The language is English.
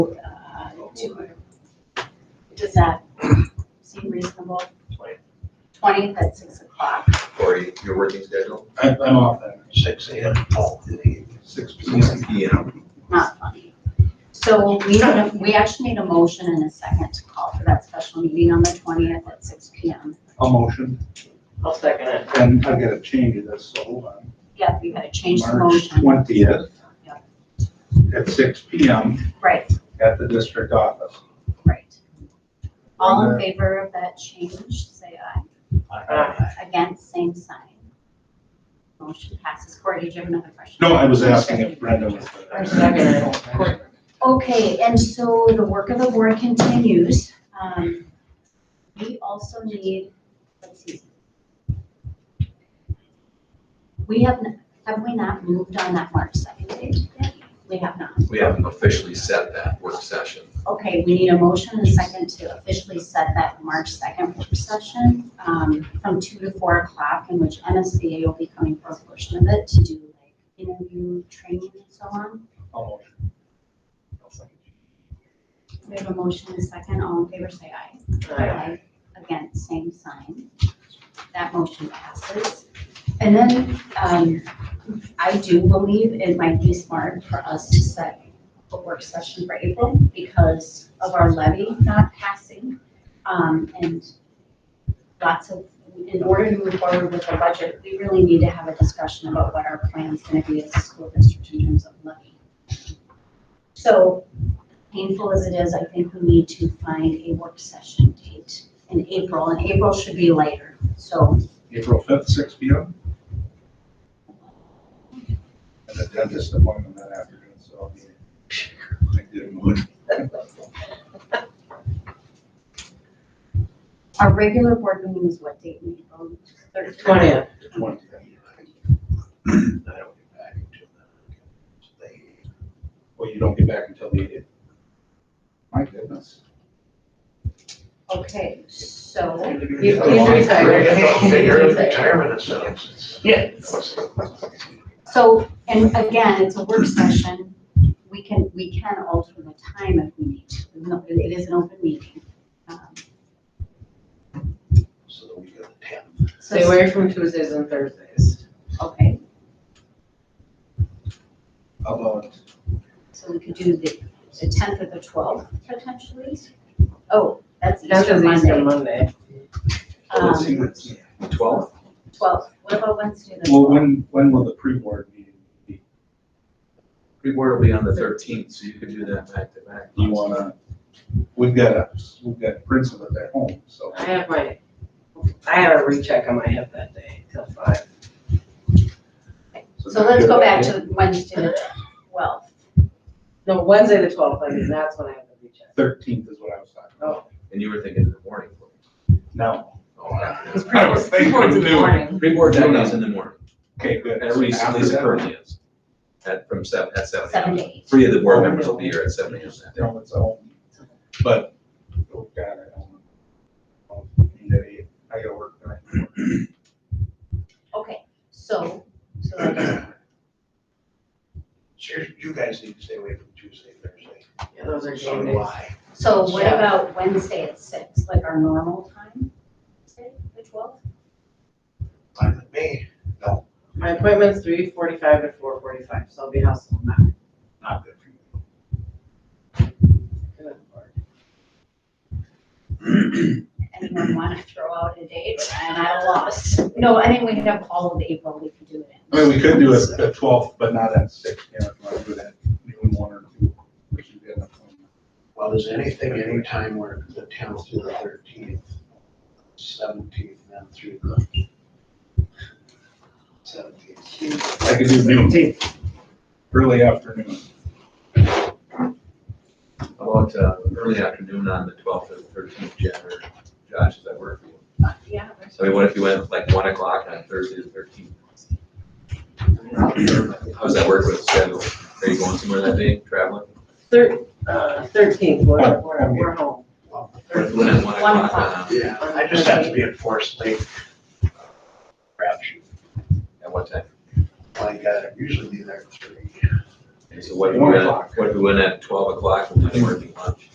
uh, two hundred. Does that seem reasonable? Twenty. Twentieth at six o'clock. Corey, your working schedule, I'm, I'm off that, six Oh, AM, twelve to eight. six P M. not funny. So we don't, we actually need a motion and a second to call for that special meeting on the twentieth at six P M. A motion, I'll second it. and I've gotta change this, so hold on. Yeah, we gotta change the March motion. twentieth Yeah. at six P M Right, at the district office. right. All in favor of that change, say aye. Against, same sign. Motion passes. Corey, did you have another question? No, I was asking if Brenda was. I'm second. Okay, and so the work of the board continues. Um, We also need, let's see. We have, n- have we not moved on that March second date yet? We have not. We haven't officially set that work session. Okay, we need a motion and a second to officially set that March second work session um, from two to four o'clock in which MSBA will be coming for a portion of it to do like interview, training and so on. A motion. I'll second. We have a motion and a second. All in favor, say aye. Aye. Again, same sign. That motion passes. And then, um, I do believe it might be smart for us to set a work session for April because of our levy not passing. Um, and lots of, in order to move forward with the budget, we really need to have a discussion about what our plan's gonna be as a school district in terms of levy. So painful as it is, I think we need to find a work session date in April, and April should be later, so. April fifth, six P M. And a dentist appointment that afternoon, so I'll be. I did move. Our regular board meeting is what date in April? Third- Twentieth. Twenty. Well, you don't get back until the eighth. My goodness. Okay, so, He's he's retired. Yes. so, and again, it's a work session, we can, we can alter the time if we need to, even though it is an open meeting. Um, So that we got the ten. so- Stay away from Tuesdays and Thursdays. Okay, About, so we could do the, the tenth or the twelfth potentially? Oh, that's That's Easter Easter Monday. Monday. let's see Um, what's, Twelve? Twelve, what about Wednesday the well, twelfth? when, when will the pre-board meeting be? Pre-board will be on the thirteenth, so you could do that back to back. Do you wanna, we've got, a- we've got principal at home, so. I have my, I have a recheck on my hip that day till five. So let's go back to Wednesday the twelfth. No, Wednesday the twelfth, I mean, that's when I have the recheck. Thirteenth is what I was talking Oh. about. And you were thinking in the morning. No. Oh, afternoon. I was thinking what to do. Pre-board that is in the morning, Okay, good. at least, at After least that, currently is. At, from seven, at seven. Seven to a.m. eight. Three of the board members will be here at seven AM that day. No, it's all, but, oh God, I don't. know. I gotta work tonight. Okay, so, so that doesn't work. So you- you guys need to stay away from Tuesday, Thursday. Yeah, those are So uh, game do days. I. So what about Wednesday at six, like our normal time? Wednesday, The twelfth? Fine with me, My appointment's three forty-five to four forty-five, so I'll be hustling back. not good for you. Anyone want to throw out a date? And I lost. No, I think we can have all of April, we can do it I mean, we could do it at twelve, but not at six, you know, if you wanna do that, noon, one or two, which is good enough. Well, is anything, anytime where the tenth through the thirteenth, seventeenth, then through the seventeenth. I could do noon, early afternoon. About, uh, early afternoon on the twelfth or the thirteenth, January. Josh, does that work for you? in. Yeah. I mean, what if you went like one o'clock on Thursday the thirteenth? How does that work with schedule? Are you going somewhere that day, traveling? Thir, uh, thirteenth, we're, we're, we're home. When at one One o'clock on, Yeah, I just have to be enforced late. Crap shoot, uh, at what time? like, I usually be there at three. And so what, do we One went- o'clock. what, do we went at twelve o'clock, we'll do working lunch.